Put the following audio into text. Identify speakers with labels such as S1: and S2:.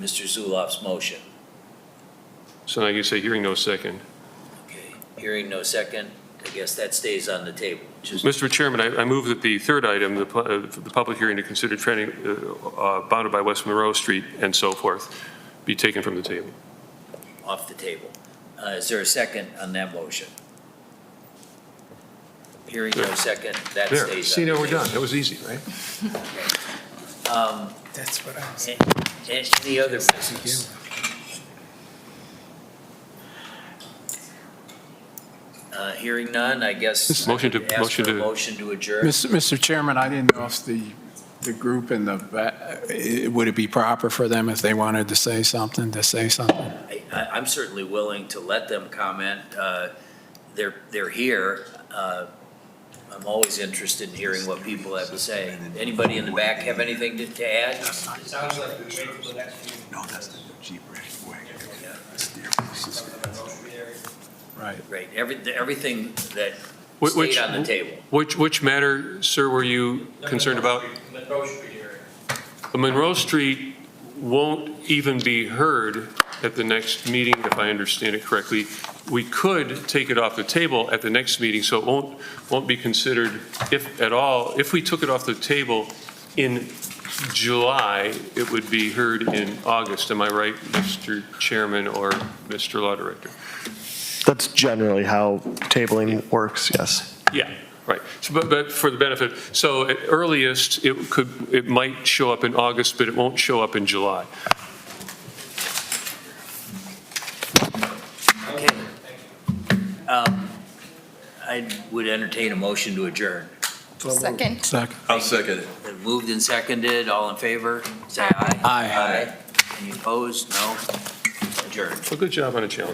S1: Mr. Zulaf's motion.
S2: So now you say hearing no second.
S1: Okay, hearing no second, I guess that stays on the table. Just,
S2: Mr. Chairman, I I move that the third item, the pu- uh, the public hearing to consider trending uh, uh, bounded by West Monroe Street and so forth, be taken from the table.
S1: off the table. Uh, is there a second on that motion? Hearing no second, that stays on the
S2: There,
S1: table.
S2: see, now we're done. That was easy, right?
S3: That's what I was.
S1: Any other business? Uh, hearing none, I guess. I
S2: Motion to-
S1: would ask
S2: motion
S1: for a
S2: to-
S1: Motion to adjourn.
S3: Mr. Chairman, I didn't know if the, the group and the, va- eh, would it be proper for them if they wanted to say something, to say something?
S1: I, I- I'm certainly willing to let them comment. Uh, They're, they're here. Uh, I'm always interested in hearing what people have to say. Anybody in the back have anything to- to add?
S4: Sounds like we wait for the next meeting.
S5: No, that's the Jeep way.
S3: Right.
S1: Great, every, everything that
S2: Wh-
S1: stayed
S2: Which,
S1: on the table.
S2: which, which matter, sir, were you concerned about?
S4: Monroe Street area.
S2: The Monroe Street won't even be heard at the next meeting, if I understand it correctly. We could take it off the table at the next meeting, so it won't, won't be considered, if at all, if we took it off the table in July, it would be heard in August. Am I right, Mr. Chairman or Mr. Law Director?
S6: That's generally how tabling works, yes.
S2: Yeah, right. So, But, but for the benefit, so at earliest, it could, it might show up in August, but it won't show up in July.
S1: Okay. Um, I would entertain a motion to adjourn.
S7: Second.
S3: Second.
S5: I'll second it.
S1: Been Moved and seconded, all in favor, say aye.
S3: Aye.
S1: Any opposed? No? Adjourned.
S2: Well, good job on a challenge.